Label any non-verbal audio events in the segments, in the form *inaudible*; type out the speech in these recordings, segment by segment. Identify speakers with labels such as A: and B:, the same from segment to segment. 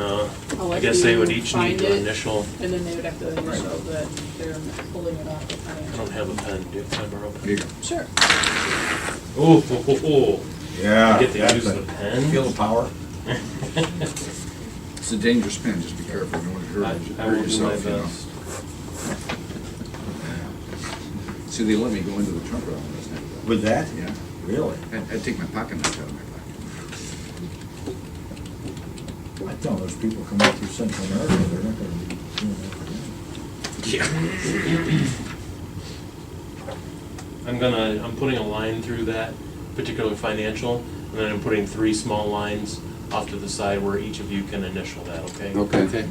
A: I'll
B: Uh, I
A: let
B: guess they
A: you
B: would each need
A: find
B: to
A: it,
B: initial,
A: And then they would have to initial that they're pulling it off the
B: I
A: financial.
B: don't have a pen, do you have a pen, Rob?
C: Here you
A: Sure.
B: Oh, oh, *laughs* oh,
C: go.
B: oh,
C: Yeah.
B: get the
C: that's
B: use of the
C: Feel
B: pen?
C: the power?
D: It's a dangerous pen, just be careful, you don't
B: I
D: want to
B: I will do my
D: hurt yourself, you know.
B: best.
D: See, they let me go into the trunk room last night.
C: With that?
D: Yeah,
C: Really?
D: I, I take my pocket knife out of my pocket.
C: I tell those people come up through Central America, they're not gonna be doing that again.
B: I'm gonna, I'm putting a line through that particular financial, and then I'm putting three small lines off to the side where each of you can initial that, okay?
D: Okay.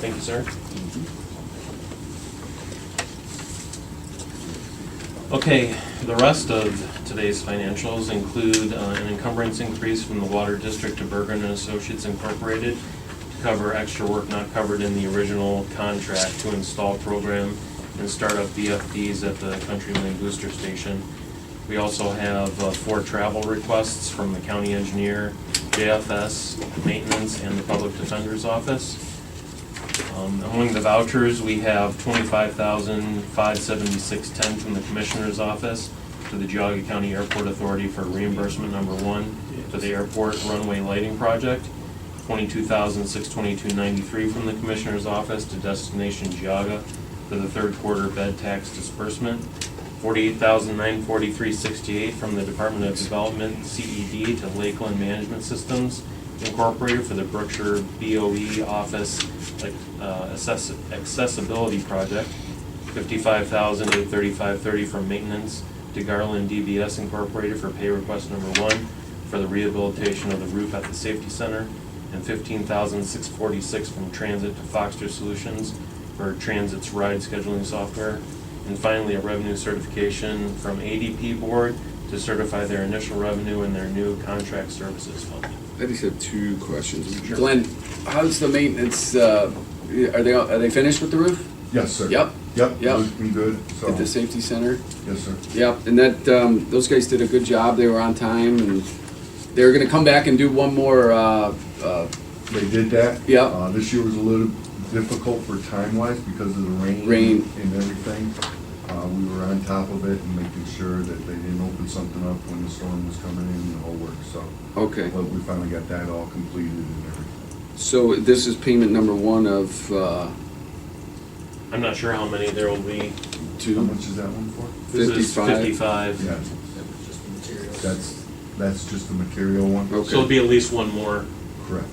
B: Thank you, sir. Okay, the rest of today's financials include uh, an encumbrance increase from the Water District to Bergen and Associates Incorporated to cover extra work not covered in the original contract to install program and start up VFDs at the Country Lane Booster Station. We also have uh, four travel requests from the county engineer, JFS, maintenance, and the public defender's office. Um, Among the vouchers, we have twenty-five thousand, five seventy-six, ten from the Commissioner's Office to the Geauga County Airport Authority for reimbursement number one to the airport runway lighting project, twenty-two thousand, six twenty-two, ninety-three from the Commissioner's Office to Destination Geauga for the third quarter bed tax disbursement, forty-eight thousand, nine forty-three, sixty-eight from the Department of Development, CED, to Lakeland Management Systems Incorporated for the Brookshire BOE E Office like, uh, access- accessibility project, fifty-five thousand eight thirty-five thirty from maintenance to Garland DBS Incorporated for pay request number one for the rehabilitation of the roof at the safety center, and fifteen thousand six forty-six from Transit to Foxter Solutions for Transit's ride scheduling software. And finally, a revenue certification from ADP Board to certify their initial revenue and their new contract services fund.
D: I just have two questions.
B: Sure.
E: Glenn, how's the maintenance, uh, are they, are they finished with the roof
F: Yes, sir.
E: Yep.
F: Yep,
E: Yep.
F: looking good, so,
E: at the
F: yes,
E: safety center?
F: sir.
E: Yep, and that, um, those guys did a good job, they were on time, and they were gonna come back and do one more, uh, uh,
F: They did that.
E: Yep.
F: Uh, this year was a little difficult for time-wise because of the rain.
E: Rain.
F: And everything. Uh, we were on top of it and making sure that they didn't open something up when the storm was coming in and the whole works, so.
E: okay.
F: But we finally got that all completed and everything.
E: So this is payment number one of, uh,
B: I'm not sure how many there will be.
F: How
E: two?
F: much is that one for?
B: This is
E: 55.
B: Fifty-five.
F: Yeah,
C: That was just the materials.
F: that's, that's just the material one?
E: Okay.
B: So it'll be at least one more.
F: Correct.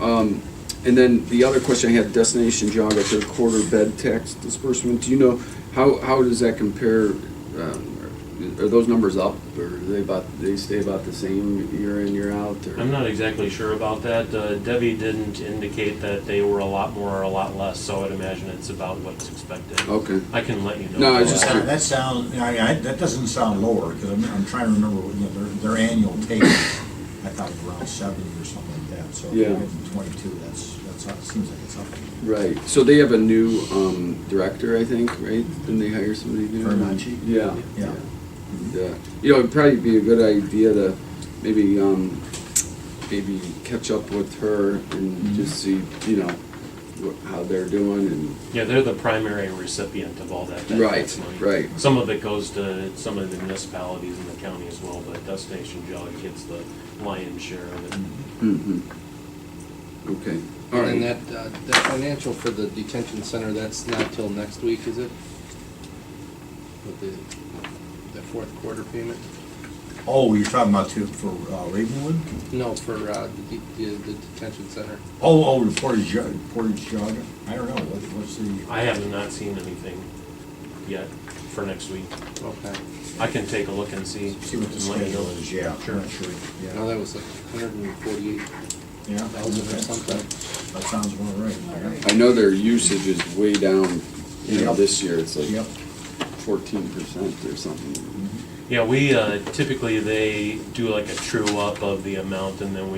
E: Um, and then the other question I had, destination Jaga, third quarter bed tax disbursement, do you know, how, how does that compare? um, Are those numbers up, or are they about, they stay about the same year in, year out, or?
B: I'm not exactly sure about that. Uh, Debbie didn't indicate that they were a lot more or a lot less, so I'd imagine it's about what's expected.
E: Okay,
B: I can let you know.
E: Oh. No, I was just-
C: Uh, That sounds, I, I, that doesn't sound lower, because I'm, I'm trying to remember, what, you know, their, their annual take, I thought was around seventy or something like that, so if
E: Yeah.
C: you're getting twenty-two, that's, that's, up- seems like it's up.
E: right, so they have a new, um, director, I think, right? Didn't they hire somebody new?
C: Vermonti?
E: Yeah.
C: Yeah.
E: And, uh, You know, it'd probably be a good idea to maybe, um, maybe catch up with her and just see, you know, wh- how they're doing and
B: Yeah, they're the primary recipient of all that. that
E: Right,
B: tax money.
E: right.
B: Some of it goes to some of the municipalities in the county as well, but Destination Jolly gets the lion's share of it.
E: Mhm. Mm-hmm. Okay, all
G: And
E: right.
G: that, uh, that financial for the detention center, that's not till next week, is it? With the, the fourth quarter payment?
C: Oh, you're talking about two for uh, Ravenwood?
G: No, for, uh, the, de- the detention center.
C: Oh, oh, the Portage, Ja- Portage Jogger, I don't know, what, what's the,
B: I have not seen anything yet for next week.
G: Okay.
B: I can take a look and see.
C: see what the
B: and let you know.
C: schedule is, yeah, I'm
B: Sure.
C: not sure,
G: Now,
C: yeah.
G: that was like hundred and forty-eight
C: Yeah,
G: thousand or something.
C: that sounds about right. yeah.
A: Alright.
E: I know their usage is way down, you know,
C: Yep.
E: this year, it's like
C: Yep.
E: fourteen percent or
G: Mm-hmm.
E: something.
B: Yeah, we, uh, typically, they do like a true up of the amount, and then we